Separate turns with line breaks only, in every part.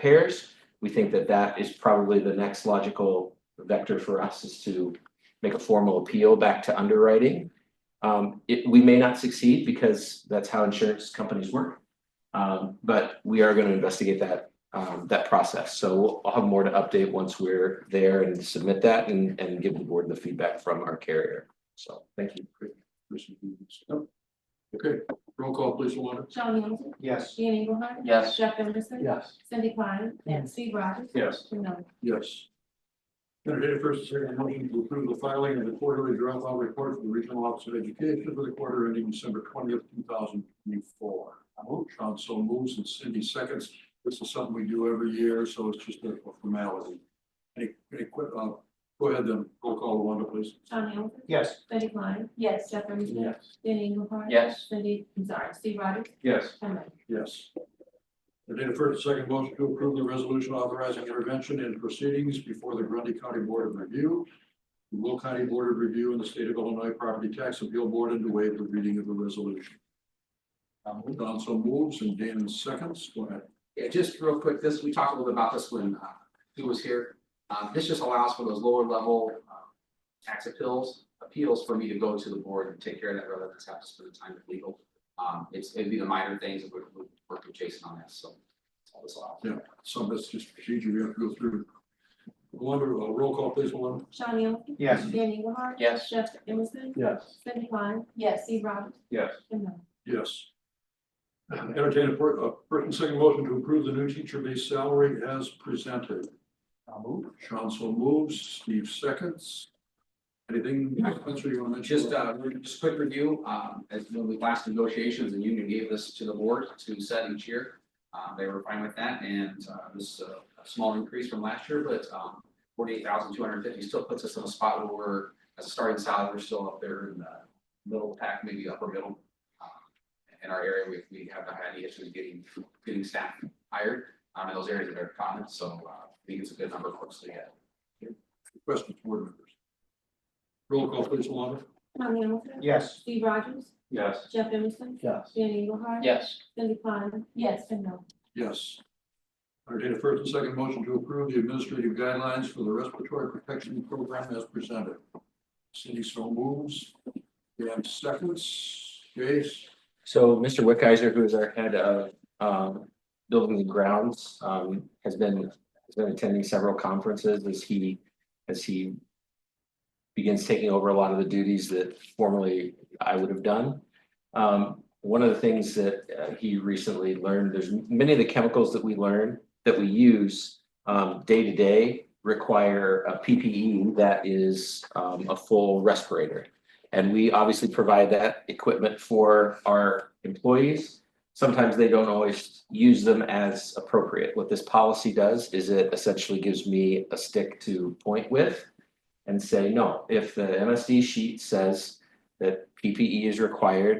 repairs. We think that that is probably the next logical vector for us is to make a formal appeal back to underwriting. Um, it, we may not succeed because that's how insurance companies work. Um, but we are gonna investigate that, um, that process. So we'll- I'll have more to update once we're there and submit that and, and give the board the feedback from our carrier. So, thank you.
Commissioner Stevens? No. Okay, roll call please, Luana.
Sean Hamilton.
Yes.
Ian Engelhard.
Yes.
Jeff Emerson.
Yes.
Cindy Klein.
Yes.
Steve Rogers.
Yes.
Jim Miller.
Yes. Entertained first and second motion to approve the filing of the quarterly dropout report for the Regional Office of Education for the quarter ending December twentieth, two thousand twenty-four. I hope Sean so moves and Cindy seconds. This is something we do every year, so it's just a formality. Any, any quick, uh, go ahead then, roll call Luana, please.
Sean Hamilton.
Yes.
Cindy Klein. Yes. Jeff Emerson. Ian Engelhard.
Yes.
Cindy, I'm sorry, Steve Rogers.
Yes.
Jim Miller.
Yes. Entertained a first and second motion to approve the resolution authorizing intervention in proceedings before the Grundy County Board of Review. the Will County Board of Review and the State of Illinois Property Tax Appeal Board and to waive the reading of the resolution. Don so moves and Dan seconds. Go ahead.
Yeah, just real quick, this, we talked a little bit about this when uh he was here. Uh this just allows for those lower level um tax appeals, appeals for me to go to the board and take care of that rather than have to spend the time with legal. Um it's it'd be the minor things that we're we're working with Jason on that, so that's all this allows.
Some of it's just procedure we have to go through. Wonder, uh, roll call please, Luana.
Sean Hamilton.
Yes.
Ian Engelhard.
Yes.
Jeff Emerson.
Yes.
Cindy Klein. Yes. Steve Rogers.
Yes.
Jim Miller.
Yes. Entertained a fir- uh, first and second motion to approve the new teacher base salary as presented.
I'll move.
Sean so moves, Steve seconds. Anything, Spencer, you want to?
Just uh just quick review, um as when we last negotiations, the union gave this to the board to set each year. Uh, they were fine with that and uh this is a- a small increase from last year, but um forty eight thousand two hundred fifty still puts us in a spot where we're as a starting salary, we're still up there in the middle pack, maybe upper middle. Um, In our area, we we haven't had any issues getting getting staff hired um in those areas that are common, so uh I think it's a good number for us to get.
Questions, board members? Roll call please, Alana.
Sean Hamilton.
Yes.
Steve Rogers.
Yes.
Jeff Emerson.
Yes.
Ian Engelhard.
Yes.
Cindy Klein. Yes. Jim Miller.
Yes. Entertained a first and second motion to approve the administrative guidelines for the respiratory protection program as presented. Cindy so moves, Dan seconds, Jase,
So Mr. Wickizer, who is our head of um building and grounds, um has been, has been attending several conferences as he, as he. Begins taking over a lot of the duties that formerly I would have done. Um, one of the things that uh, he recently learned, there's many of the chemicals that we learn, that we use. Um, day to day require a PPE that is um a full respirator. And we obviously provide that equipment for our employees. Sometimes they don't always use them as appropriate. What this policy does is it essentially gives me a stick to point with. And say, no, if the MSD sheet says that PPE is required.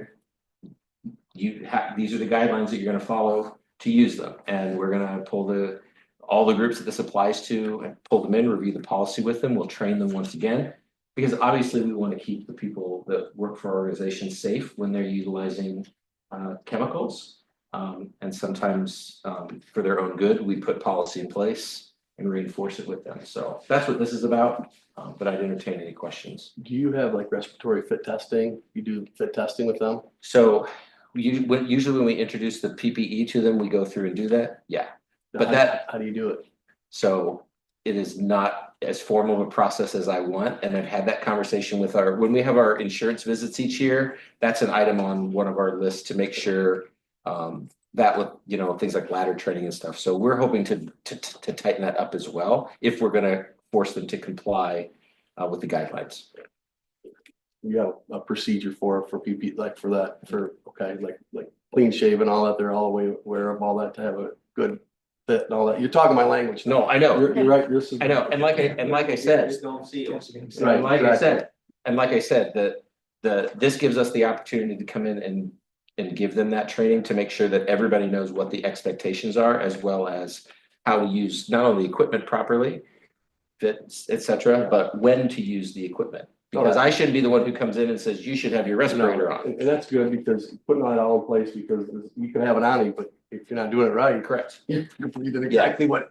You have, these are the guidelines that you're gonna follow to use them, and we're gonna pull the. All the groups that this applies to, and pull them in, review the policy with them, we'll train them once again. Because obviously we want to keep the people that work for our organization safe when they're utilizing uh chemicals. Um and sometimes um for their own good, we put policy in place and reinforce it with them. So that's what this is about. Um but I'd entertain any questions.
Do you have like respiratory fit testing? You do fit testing with them?
So you when usually when we introduce the PPE to them, we go through and do that. Yeah. But
How-
that-
How do you do it?
So it is not as formal of a process as I want, and I've had that conversation with our, when we have our insurance visits each year, that's an item on one of our lists to make sure um, that with, you know, things like ladder training and stuff. So we're hoping to to to tighten that up as well, if we're gonna force them to comply uh, with the guidelines.
You have a procedure for, for PP, like for that, for, okay, like, like clean shave and all that, they're all way aware of all that to have a good fit and all that. You're talking my language. now.
No, I know,
You're, you're right, this is.
I know, and like I, and like I said,
don't see it.
So, and
Right,
like I
exactly.
said, and like I said, the, the, this gives us the opportunity to come in and. And give them that training to make sure that everybody knows what the expectations are, as well as how to use not only equipment properly. Fits, et cetera, but when to use the equipment,
Oh,
because I shouldn't be the one who comes in and says, you should have your respirator on.
And and that's good because putting that all in place because this- you can have it on you, but if you're not doing it right,
Correct.
you're did exactly what